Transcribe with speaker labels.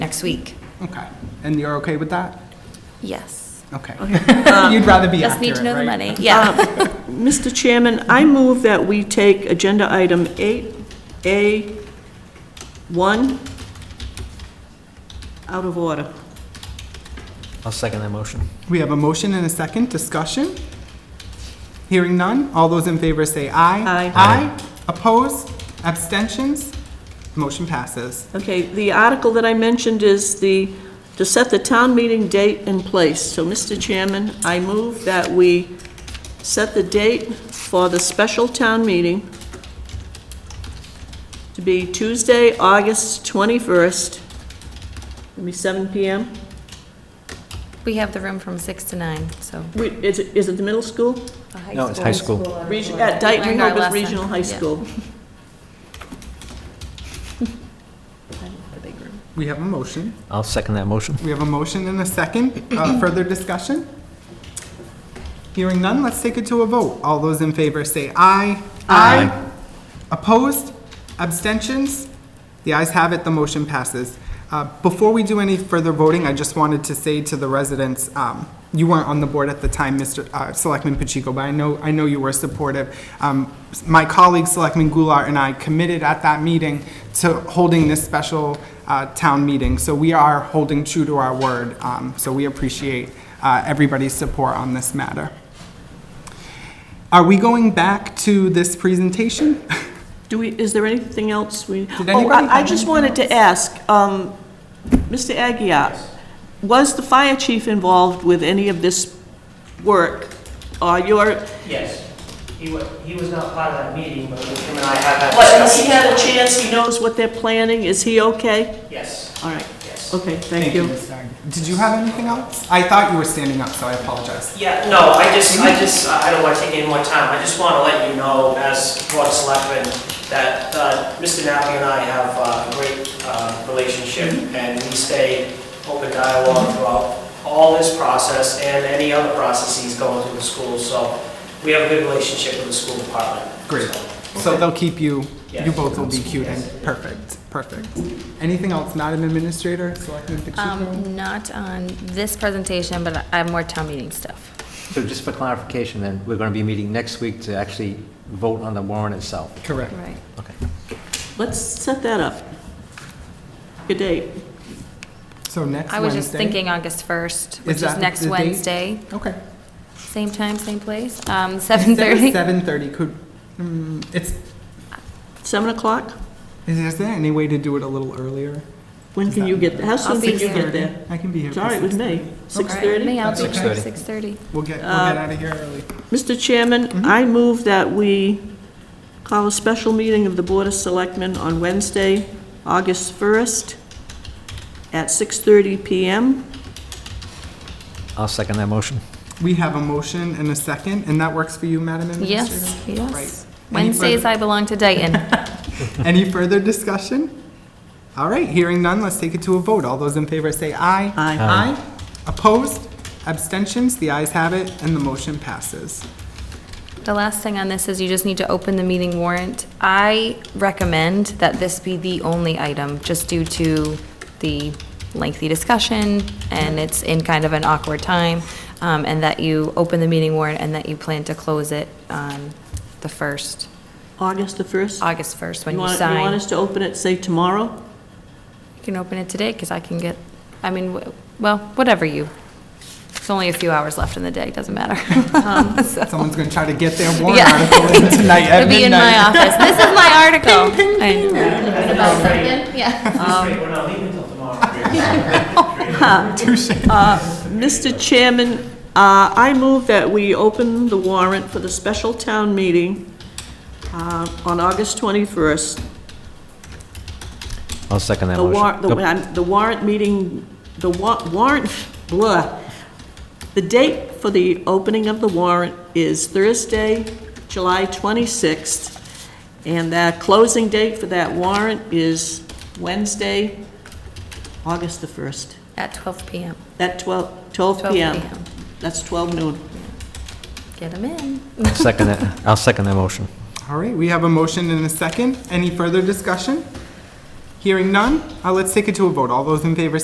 Speaker 1: next week.
Speaker 2: Okay. And you're okay with that?
Speaker 1: Yes.
Speaker 2: Okay. You'd rather be accurate,
Speaker 1: Um, Just need to know the
Speaker 2: right?
Speaker 1: money. Um, Yeah.
Speaker 3: Mr. Uh, Chairman, I move that we take Agenda Item 8A1 out of order.
Speaker 4: I'll second that motion.
Speaker 2: We have a motion and a second discussion. Hearing none, all those in favor say aye.
Speaker 3: Aye.
Speaker 2: Aye. Opposed? Abstentions? Motion passes.
Speaker 3: Okay, the article that I mentioned is the, to set the town meeting date and place. So, Mr. Chairman, I move that we set the date for the special town meeting to be Tuesday, August 21st, it'll be 7 PM.
Speaker 1: We have the room from six to nine, so.
Speaker 3: We- Is it, is it the middle school?
Speaker 4: No, it's high school.
Speaker 3: Reg- At Dayton
Speaker 1: Learned our
Speaker 3: Rehoboth
Speaker 1: lesson.
Speaker 3: Regional High
Speaker 1: Yeah.
Speaker 3: School.
Speaker 2: We have a motion.
Speaker 4: I'll second that motion.
Speaker 2: We have a motion and a second. Uh, Further discussion? Hearing none, let's take it to a vote. All those in favor say aye. Aye. Opposed? Abstentions? The ayes have it, the motion passes. Uh, Before we do any further voting, I just wanted to say to the residents, um, you weren't on the board at the time, Mr. uh, Selectman Pacheco, but I know, I know you were supportive. Um, My colleague, Selectman Goulart, and I committed at that meeting to holding this special uh, town meeting, so we are holding true to our word. Um, So we appreciate uh, everybody's support on this matter. Are we going back to this presentation?
Speaker 3: Do we, is there anything else we? Did
Speaker 2: anybody
Speaker 3: Oh, I- I
Speaker 2: have anything
Speaker 3: just wanted to ask, um, Mr. Aguirre, was the fire chief involved with any of this work? Or your,
Speaker 5: Yes, he was, he was not part of that meeting, but him and I have had
Speaker 3: what, has he
Speaker 5: discussion.
Speaker 3: had a chance, he knows what they're planning, is he okay?
Speaker 5: Yes,
Speaker 3: All right,
Speaker 5: yes.
Speaker 3: okay, thank you.
Speaker 2: Ms. Stein. Did you have anything else? I thought you were standing up, so I apologize.
Speaker 5: Yeah, no, I just, I just, I don't want to take any more time. I just want to let you know, as Board of Selectmen, that uh, Mr. Nappy and I have uh, a great uh, relationship,
Speaker 3: Mm-hmm.
Speaker 5: and we stay open dialogue throughout all this process and any other processes going through the school, so we have a good relationship with the school department.
Speaker 2: Great.
Speaker 5: So-
Speaker 2: So they'll keep you, you
Speaker 5: Yes.
Speaker 2: both will be cued in. Perfect, perfect. Anything else, Madam Administrator, Selectman Pacheco?
Speaker 1: Um, not on this presentation, but I have more town meeting stuff.
Speaker 4: So just for clarification, then, we're going to be meeting next week to actually vote on the warrant itself.
Speaker 2: Correct.
Speaker 1: Right.
Speaker 4: Okay.
Speaker 3: Let's set that up. Good date.
Speaker 2: So next Wednesday?
Speaker 1: I was just thinking August first, which is
Speaker 2: that
Speaker 1: next
Speaker 2: the date?
Speaker 1: Wednesday,
Speaker 2: Okay.
Speaker 1: same time, same place, um, seven thirty.
Speaker 2: Seven thirty, could, mm, it's,
Speaker 3: 7 o'clock?
Speaker 2: is is there any way to do it a little earlier?
Speaker 3: When
Speaker 2: Is
Speaker 3: can
Speaker 2: that-
Speaker 3: you get, how
Speaker 1: I'll
Speaker 3: soon can
Speaker 1: be
Speaker 3: you get
Speaker 1: here.
Speaker 3: there?
Speaker 2: I can be here.
Speaker 3: It's
Speaker 2: for
Speaker 3: all right with
Speaker 2: 6:30.
Speaker 3: me, 6:30?
Speaker 1: Me, I'll
Speaker 2: That's
Speaker 1: be here at
Speaker 4: okay.
Speaker 1: six thirty.
Speaker 2: We'll get, we'll get
Speaker 3: Uh,
Speaker 2: out of here early.
Speaker 3: Mr. Chairman, I move that we call a special meeting of the Board of Selectmen on Wednesday, August 1st, at 6:30 PM.
Speaker 4: I'll second that motion.
Speaker 2: We have a motion and a second, and that works for you, Madam Administrator?
Speaker 1: Yes,
Speaker 2: Right.
Speaker 1: yes.
Speaker 2: Any
Speaker 1: Wednesdays
Speaker 2: further-
Speaker 1: I belong to Dayton.
Speaker 2: Any further discussion? All right, hearing none, let's take it to a vote. All those in favor say aye.
Speaker 3: Aye.
Speaker 2: Aye. Opposed? Abstentions? The ayes have it, and the motion passes.
Speaker 1: The last thing on this is you just need to open the meeting warrant. I recommend that this be the only item, just due to the lengthy discussion, and it's in kind of an awkward time, um, and that you open the meeting warrant and that you plan to close it on the 1st,
Speaker 3: August the 1st?
Speaker 1: August 1st, when you
Speaker 3: want- You want
Speaker 1: sign.
Speaker 3: us to open it, say, tomorrow?
Speaker 1: You can open it today, because I can get, I mean, w- well, whatever you, there's only a few hours left in the day, doesn't matter. So-
Speaker 2: Someone's going to try to get their warrant
Speaker 1: Yeah.
Speaker 2: article in tonight at
Speaker 1: It'll be in my
Speaker 2: midnight.
Speaker 1: office. This is my article. I know. It's about something, yeah.
Speaker 5: Wait, We're not leaving until tomorrow.
Speaker 3: Mr. Chairman, uh, I move that we open the warrant for the special town meeting uh, on August 21st,
Speaker 4: I'll second that
Speaker 3: The warrant,
Speaker 4: motion.
Speaker 3: the
Speaker 4: Nope.
Speaker 3: I'm- the warrant meeting, the wa- warrant, blah. The date for the opening of the warrant is Thursday, July 26th, and the closing date for that warrant is Wednesday, August the 1st,
Speaker 1: At 12 PM.
Speaker 3: at 12, 12
Speaker 1: 12
Speaker 3: PM.
Speaker 1: PM.
Speaker 3: That's 12 noon.
Speaker 1: Get them in.
Speaker 4: I'll Second that, I'll second that motion.
Speaker 2: All right, we have a motion and a second. Any further discussion? Hearing none, uh, let's take it to a vote. All those in favor